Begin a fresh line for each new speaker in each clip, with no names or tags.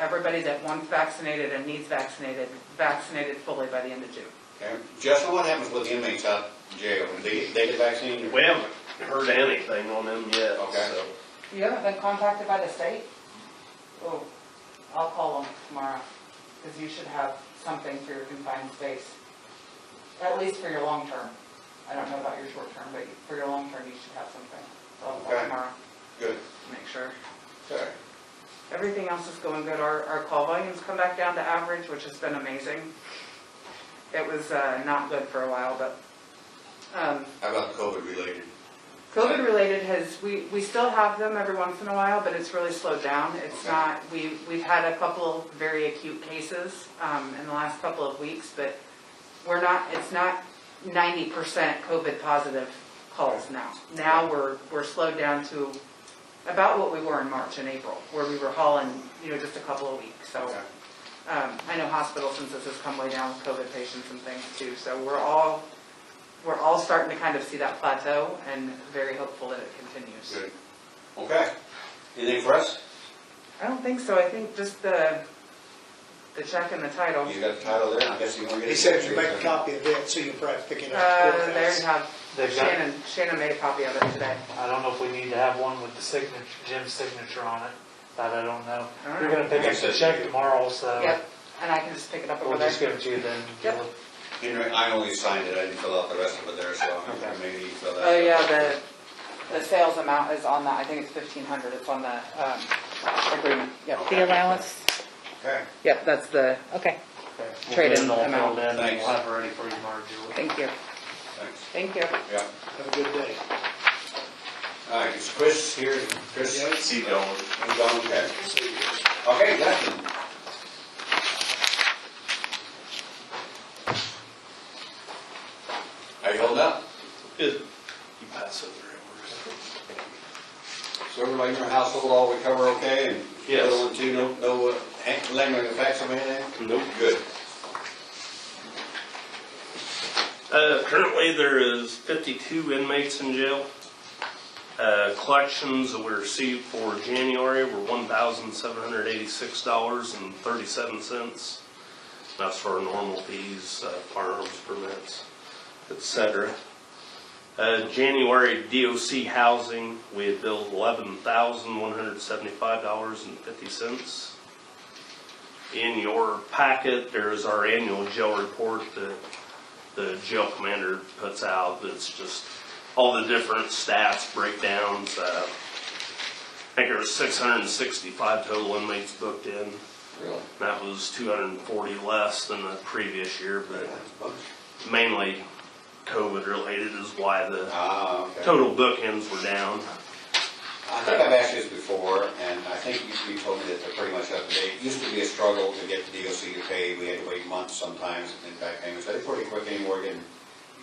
Everybody that wants vaccinated and needs vaccinated, vaccinated fully by the end of June.
Okay. Justin, what happens with inmates out of jail? Do they, they get vaccinated?
We haven't heard anything on them yet,
Okay.
so.
You haven't been contacted by the state? Oh, I'll call them tomorrow, because you should have something for your confined space. At least for your long term. I don't know about your short term, but for your long term, you should have something. So I'll call
Okay.
tomorrow
Good.
to make sure.
Okay.
Everything else is going good. Our, our call volumes come back down to average, which has been amazing. It was uh, not good for a while, but um,
How about COVID related?
COVID-related has, we, we still have them every once in a while, but it's really slowed down. It's
Okay.
not, we, we've had a couple very acute cases um, in the last couple of weeks, but we're not, it's not 90% COVID positive calls now. Now we're, we're slowed down to about what we were in March and April, where we were hauling, you know, just a couple of weeks, so.
Okay.
Um, I know hospital census has come way down with COVID patients and things too, so we're all, we're all starting to kind of see that plateau and very hopeful that it continues.
Good. Okay. Anything for us?
I don't think so, I think just the, the check and the title.
You got the title there, I guess you want to get.
He said you make a copy of it, so you can probably pick it up. at the
Uh, there you
courthouse.
have,
They've got-
Shannon, Shannon made a copy of it today.
I don't know if we need to have one with the signature, Jim's signature on it, that I don't know. You're gonna pick up the check tomorrow, so
Uh,
Yep, and I can just pick it up over
we'll just
there.
give it to you then.
Yep.
Henry, I only signed it, I didn't fill out the rest of it there, so
Okay.
maybe you fill that.
Oh, yeah, the, the sales amount is on that, I think it's fifteen hundred, it's on the, um, agreement, yep.
Okay.
The allowance,
Okay.
Yep, that's the,
okay,
Trade in
We'll get it all
amount.
filled in, and
Thanks.
we'll have it ready for you tomorrow, Julie.
thank you,
Thanks.
thank you.
Yeah.
Have a good day.
All right, is Chris here? Chris?
See, Dylan.
And Don, okay. Okay, Justin. How you holding up?
Good. You pass over it.
So everybody in your household all recover okay and?
Yes.
Little one too, no, no uh, ha- lingering effects on anything?
Nope.
Good.
Uh, currently, there is 52 inmates in jail. Uh, collections that we received for January were $1,786.37. That's for our normal fees, uh, firearms permits, et cetera. Uh, January DOC housing, we had billed $11,175.50. In your packet, there is our annual jail report that the jail commander puts out that's just all the different stats, breakdowns. Uh, I think there was 665 total inmates booked in. and
Really?
That was 240 less than the previous year, but
That's a bunch.
mainly COVID related is why the
Ah, okay.
total bookings were down.
I think I've asked this before, and I think you, you told me that they're pretty much up to date. It used to be a struggle to get the DOC to pay, we had to wait months sometimes and then back payments, they're pretty quick anymore getting,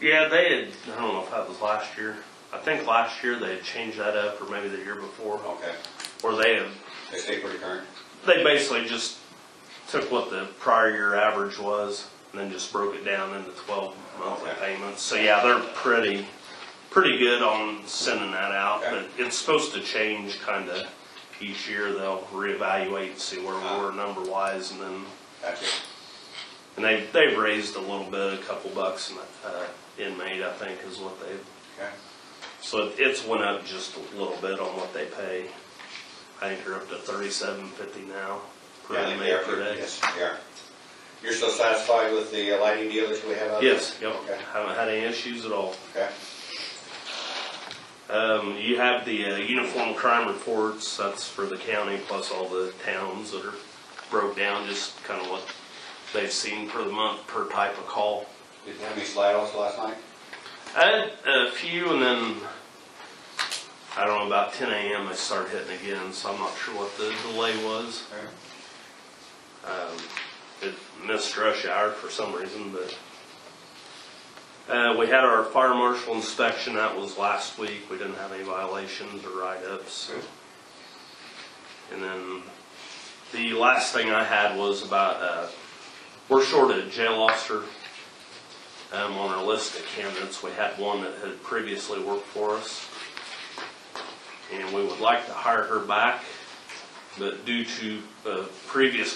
Yeah, they had, I don't know if that was last year. I think last year they had changed that up or maybe the year before,
okay,
or they had
they stay pretty current.
They basically just took what the prior year average was and then just broke it down into twelve monthly
Okay.
payments. So yeah, they're pretty, pretty good on sending that out,
Okay.
but it's supposed to change kinda each year. They'll reevaluate, see where
Ah.
we were number wise and then,
Gotcha.
and they, they've raised a little bit, a couple bucks an uh, inmate, I think is what they,
Okay.
so it- it's went up just a little bit on what they pay. I think they're up to thirty-seven fifty now per
Yeah, I think they are
inmate per
pretty-
day.
Yes, they are. You're still satisfied with the uh, lighting deal that we have out there?
Yes, yep,
Okay,
haven't had any issues at all.
okay.
Um, you have the uh, uniform crime reports, that's for the county plus all the towns that are broke down, just kind of what they've seen per the month, per type of call.
Did you have any slide offs last night?
I had a few and then, I don't know, about ten AM they started hitting again, so I'm not sure what the delay was.
Okay.
Um, it missed rush hour for some reason, but. Uh, we had our fire marshal inspection, that was last week, we didn't have any violations or write-ups.
Good.
And then, the last thing I had was about, uh, we're short a jail officer, um, on our list of candidates, we had one that had previously worked for us. And we would like to hire her back, But due to, uh, previous